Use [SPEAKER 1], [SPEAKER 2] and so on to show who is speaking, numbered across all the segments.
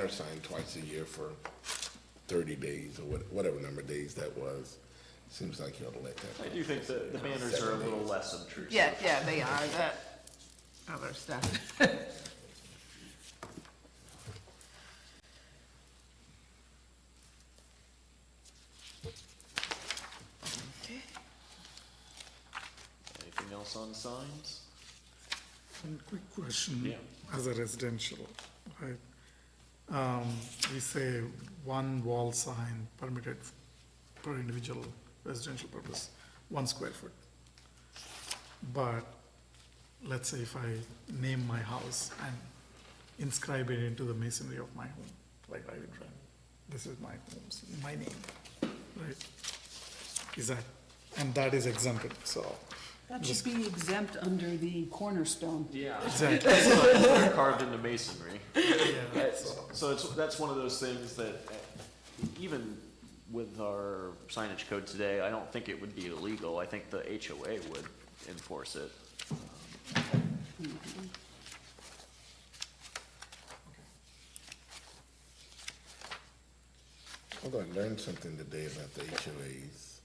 [SPEAKER 1] They're signed twice a year for thirty days or what- whatever number of days that was. Seems like you ought to let
[SPEAKER 2] I
[SPEAKER 1] that.
[SPEAKER 2] do think the, the banners are a little less obtrusive.
[SPEAKER 3] Yeah, yeah, they are, that other stuff. Okay.
[SPEAKER 2] Anything else on signs?
[SPEAKER 4] One quick question,
[SPEAKER 2] Yeah.
[SPEAKER 4] as a residential, right? Um, we say one wall sign permitted per individual residential purpose, one square foot. But let's say if I name my house and inscribe it into the masonry of my home, like I would run, this is my home's, my name, right? Is that, and that is exempted, so,
[SPEAKER 5] That should be exempt under the cornerstone.
[SPEAKER 2] Yeah.
[SPEAKER 4] exactly,
[SPEAKER 2] They're carved into masonry.
[SPEAKER 4] yeah.
[SPEAKER 2] So it's, that's one of those things that, uh, even with our signage code today, I don't think it would be illegal. I think the HOA would enforce it.
[SPEAKER 1] I'm gonna learn something today about the HOAs,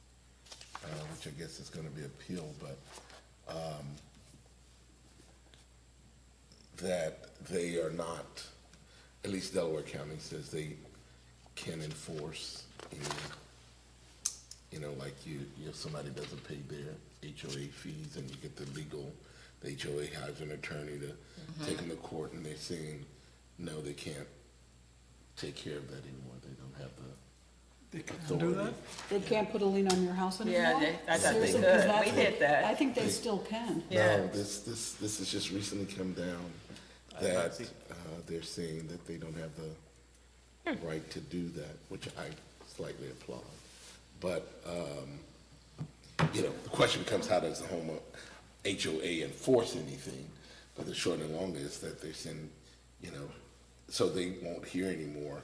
[SPEAKER 1] uh, which I guess is gonna be appealed, but, um, that they are not, at least Delaware County says they can enforce any you know, like you, you know, somebody doesn't pay their HOA fees and you get the legal, the HOA hires an attorney to take them to court and they're saying, no, they can't take care of that anymore. They don't have the
[SPEAKER 4] They can do
[SPEAKER 1] authority.
[SPEAKER 4] that?
[SPEAKER 5] They can't put a lien on your house anymore?
[SPEAKER 3] Yeah, they- I thought they
[SPEAKER 5] Seriously,
[SPEAKER 3] could.
[SPEAKER 5] 'cause that's
[SPEAKER 3] We
[SPEAKER 5] what-
[SPEAKER 3] did that.
[SPEAKER 5] I think they still can.
[SPEAKER 1] No,
[SPEAKER 3] Yeah.
[SPEAKER 1] this, this, this has just recently come down
[SPEAKER 2] I've not
[SPEAKER 1] that,
[SPEAKER 2] seen-
[SPEAKER 1] uh, they're saying that they don't have the
[SPEAKER 3] Hmm.
[SPEAKER 1] right to do that, which I slightly applaud. But, um, you know, the question becomes how does the home HOA enforce anything? But the short and long is that they're saying, you know, so they won't hear anymore,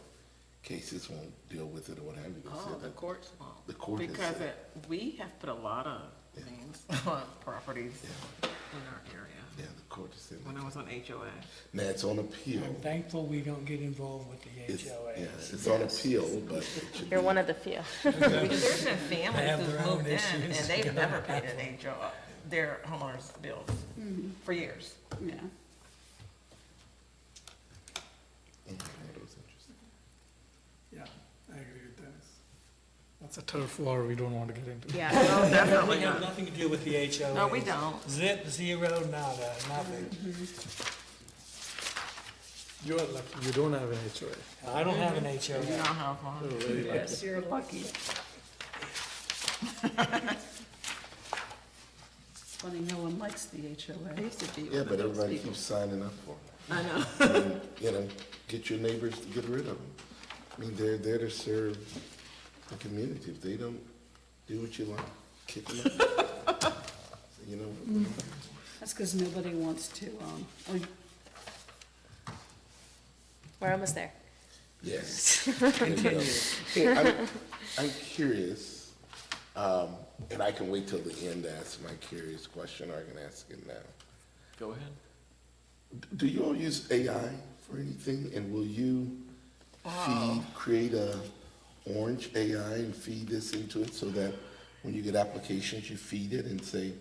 [SPEAKER 1] cases won't deal with it or what have you. They
[SPEAKER 3] Oh,
[SPEAKER 1] said
[SPEAKER 3] the
[SPEAKER 1] that-
[SPEAKER 3] courts won't.
[SPEAKER 1] The court has
[SPEAKER 3] Because
[SPEAKER 1] said-
[SPEAKER 3] it- we have put a lot of things on properties in our area,
[SPEAKER 1] Yeah, the court has said,
[SPEAKER 3] when I was on HOA.
[SPEAKER 1] now it's on appeal.
[SPEAKER 6] I'm thankful we don't get involved with
[SPEAKER 1] It's,
[SPEAKER 6] the
[SPEAKER 1] yeah,
[SPEAKER 6] HOAs.
[SPEAKER 1] it's on appeal, but it should be.
[SPEAKER 7] You're one of the few.
[SPEAKER 3] Because there's been families
[SPEAKER 6] have
[SPEAKER 3] who've
[SPEAKER 6] their own
[SPEAKER 3] moved in and
[SPEAKER 6] issues.
[SPEAKER 3] they've never paid an HOA, their homeowners' bills, for years.
[SPEAKER 5] Yeah.
[SPEAKER 1] Okay, that was interesting.
[SPEAKER 4] Yeah, I agree with Dennis. That's a turf war we don't want to get into.
[SPEAKER 7] Yeah.
[SPEAKER 3] Oh,
[SPEAKER 6] We
[SPEAKER 3] definitely
[SPEAKER 6] have
[SPEAKER 3] not.
[SPEAKER 6] nothing to do with the HOAs.
[SPEAKER 3] No, we don't.
[SPEAKER 6] Zip, zero, nada, nothing.
[SPEAKER 4] You're lucky, you don't have an HOA.
[SPEAKER 6] I don't have an
[SPEAKER 3] You don't
[SPEAKER 6] HOA.
[SPEAKER 3] have one. Yes, you're lucky.
[SPEAKER 5] It's funny, no one likes the HOA.
[SPEAKER 3] I used to
[SPEAKER 1] Yeah,
[SPEAKER 3] be one of
[SPEAKER 1] but
[SPEAKER 3] those
[SPEAKER 1] everybody
[SPEAKER 3] people.
[SPEAKER 1] keeps signing up for
[SPEAKER 3] I know.
[SPEAKER 1] them. And, You know, get your neighbors to get rid of them. I mean, they're there to serve the community. If they don't do what you like, kick them out. You know,
[SPEAKER 5] That's because nobody wants to, um, or
[SPEAKER 7] We're almost there.
[SPEAKER 1] yes. There you go. Hey, I'm- I'm curious, um, and I can wait till the end to ask my curious question, or I can ask it now.
[SPEAKER 2] Go ahead.
[SPEAKER 1] Do you all use AI for anything, and will you feed, create a orange AI and feed this into it so that when you get applications, you feed it and say,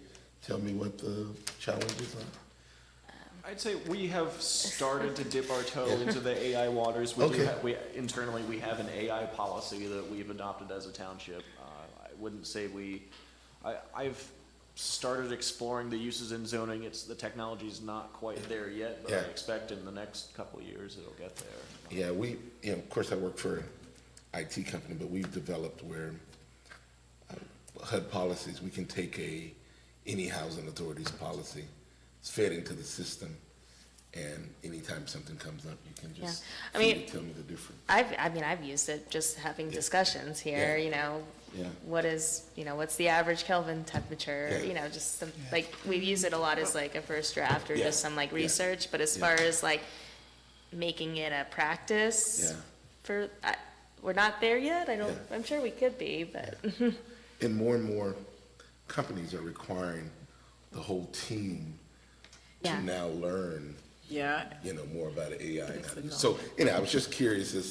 [SPEAKER 1] tell me what the challenges are?
[SPEAKER 2] I'd say we have started to dip our toe into the AI waters. We do
[SPEAKER 1] Okay.
[SPEAKER 2] ha we, internally, we have an AI policy that we've adopted as a township. Uh, I wouldn't say we, I, I've started exploring the uses in zoning. It's, the technology's not quite there yet, but I
[SPEAKER 1] Yeah.
[SPEAKER 2] expect in the next couple of years it'll get there.
[SPEAKER 1] Yeah, we, you know, of course, I work for an IT company, but we've developed where uh, HUD policies, we can take a, any housing authority's policy, it's fed into the system, and anytime something comes up, you can just
[SPEAKER 7] I
[SPEAKER 1] feed
[SPEAKER 7] mean-
[SPEAKER 1] it, tell me the difference.
[SPEAKER 7] I've, I mean, I've used it just having discussions here,
[SPEAKER 1] Yeah.
[SPEAKER 7] you know.
[SPEAKER 1] Yeah.
[SPEAKER 7] What is, you know, what's the average Kelvin temperature,
[SPEAKER 1] Yeah.
[SPEAKER 7] you know, just some, like, we use it a lot as like a first draft or
[SPEAKER 1] Yeah.
[SPEAKER 7] just some like
[SPEAKER 1] Yeah.
[SPEAKER 7] research, but as
[SPEAKER 1] Yeah.
[SPEAKER 7] far as like making it a practice
[SPEAKER 1] Yeah.
[SPEAKER 7] for, I, we're not there yet. I don't,
[SPEAKER 1] Yeah.
[SPEAKER 7] I'm sure we could be, but
[SPEAKER 1] And more and more companies are requiring the whole team
[SPEAKER 7] Yeah.
[SPEAKER 1] to now learn
[SPEAKER 3] Yeah,
[SPEAKER 1] you know, more about AI.
[SPEAKER 3] That's the
[SPEAKER 1] So, anyway, I was just curious as